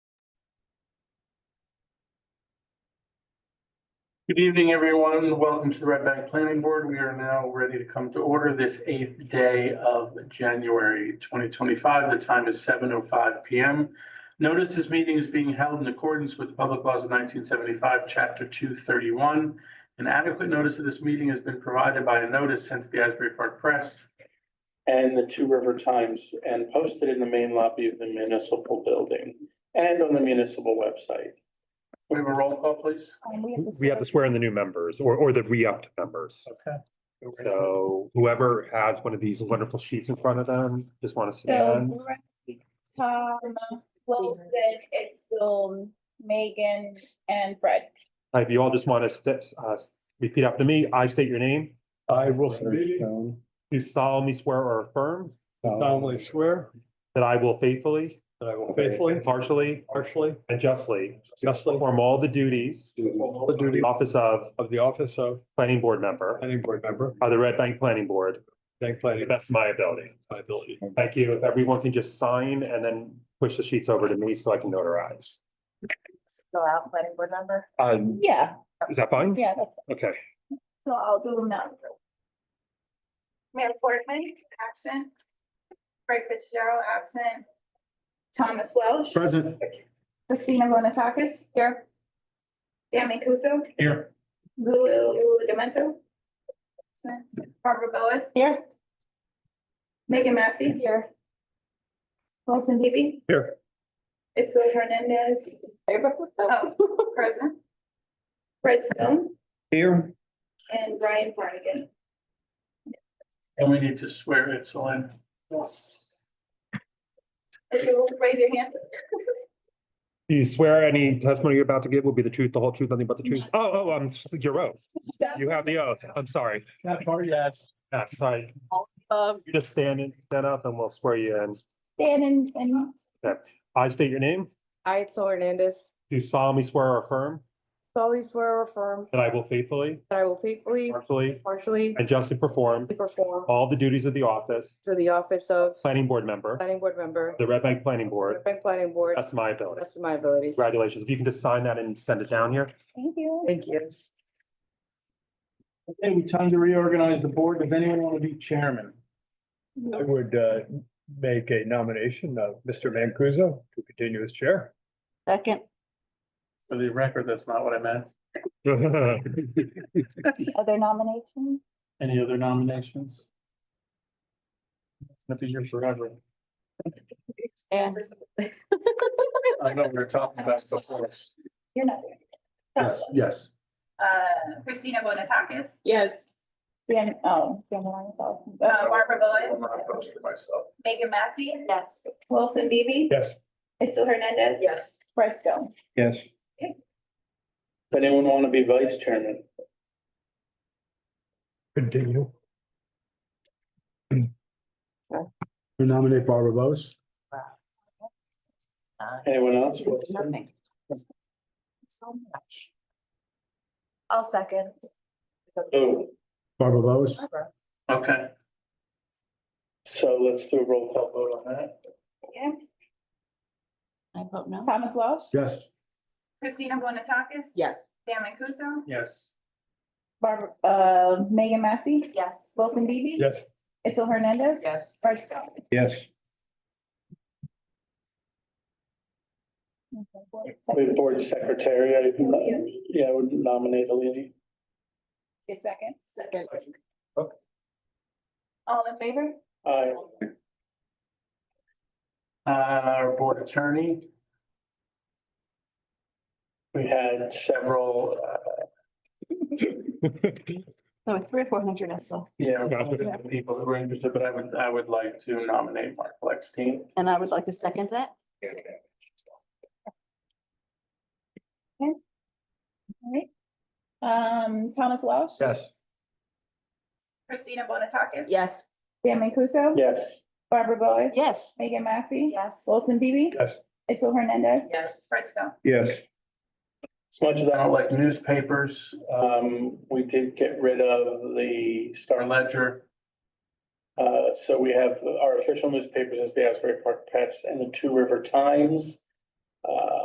Good evening, everyone. Welcome to the Red Bank Planning Board. We are now ready to come to order this eighth day of January twenty twenty-five. The time is seven oh five P M. Notice this meeting is being held in accordance with Public Laws of nineteen seventy-five, Chapter two thirty-one. An adequate notice of this meeting has been provided by a notice sent to the Asbury Park Press and the Two River Times and posted in the main lobby of the municipal building and on the municipal website. We have a roll call, please. Um, We We have to swear in the new members or, or the re-upped members. Okay. So whoever has one of these wonderful sheets in front of them, just want to stand. So, Brett, Tom, Wilson, it's um, Megan and Fred. Uh, If you all just want to step, uh, repeat after me, I state your name, I will Larry freely Stone, do solemnly swear or affirm solemnly swear that I will faithfully, that I will faithfully, impartially, partially, and justly justly perform all the duties perform all the of the duties office of of the office of planning board member planning board member, of the Red Bank Planning Board, bank to the planning, best of my ability. my ability. Thank you. If everyone can just sign and then push the sheets over to me so I can notarize. Go out, planning board member? Um, Yeah, is that fine? yeah, that's, Okay. so I'll do them now. Mayor Portman, absent. Craig Fitzgerald, absent. Thomas Welsh. Present. Christina Bonatakis, here. Tammy Kuso. Here. Lou Demento. Absent. Barbara Boas. Here. Megan Massey. Here. Wilson Bibi. Here. Itzel Hernandez. Oh, present. Fred Stone Here. and Brian Flanagan. And we need to swear Itzel in. Yes. If you will raise your hand. Do you swear any testimony you're about to give will be the truth, the whole truth, nothing but the truth? Oh, oh, I'm, your oath. You have the oath. I'm sorry. That part, yes. Yeah, sorry. Um, You just stand and stand up and we'll swear you in. Dan and, and I state your name. I, Sol Hernandez, Do solemnly swear or affirm solemnly swear or affirm that I will faithfully, that I will faithfully, impartially, partially, and justly perform and perform all the duties of the office, for the office of planning board member, planning board member, the Red Bank Planning Board. Burbank Planning Board, That's my ability. best of my abilities. Congratulations. If you can just sign that and send it down here. thank you. Thank you. Okay, we time to reorganize the board. Does anyone want to be chairman? I would uh, make a nomination of Mr. Mancuso to continue as chair. Second. For the record, that's not what I meant. Other nominations? Any other nominations? It's gonna be here forever. Yeah. I know we we're talking about before. You're not. Yes, yes. Uh, Christina Bonatakis, Yes. Dan, oh, Dan Lyons, oh. uh, Barbara I'm Boas, not opposed to myself. Megan Massey, Yes. Wilson Bibi. Yes. Itzel Hernandez. Yes. Fred Stone. Yes. Does Anyone want to be vice chairman? Continue. Who nominate Barbara Bose? Uh, Anyone else? So much. I'll second. Oh, Barbara Bose? okay. So let's do a roll call vote on that. I vote no. Thomas Welsh. Yes. Christina Bonatakis. Yes. Dan Mancuso, Yes. Barbara, uh, Megan Massey. Yes. Wilson Bibi. Yes. Itzel Hernandez. Yes. Fred Stone. Yes. We have board secretary. I, yeah, I would nominate Alini. Your second. Second. All in favor? Aye. Uh, our board attorney. We had several, uh, No, it's three or four hundred, I saw. yeah, people who were interested, but I would, I would like to nominate Mark Lexstein. And I would like to second that. All right. Um, Thomas Welsh. Yes. Christina Bonatakis. Yes. Dan Mancuso. Yes. Barbara Boas. Yes. Megan Massey. Yes. Wilson Bibi. Yes. Itzel Hernandez. Yes. Fred Stone, Yes. As much as I don't like newspapers, um, we did get rid of the Star Ledger. Uh, so we have our official newspapers as the Asbury Park Press and the Two River Times. Uh,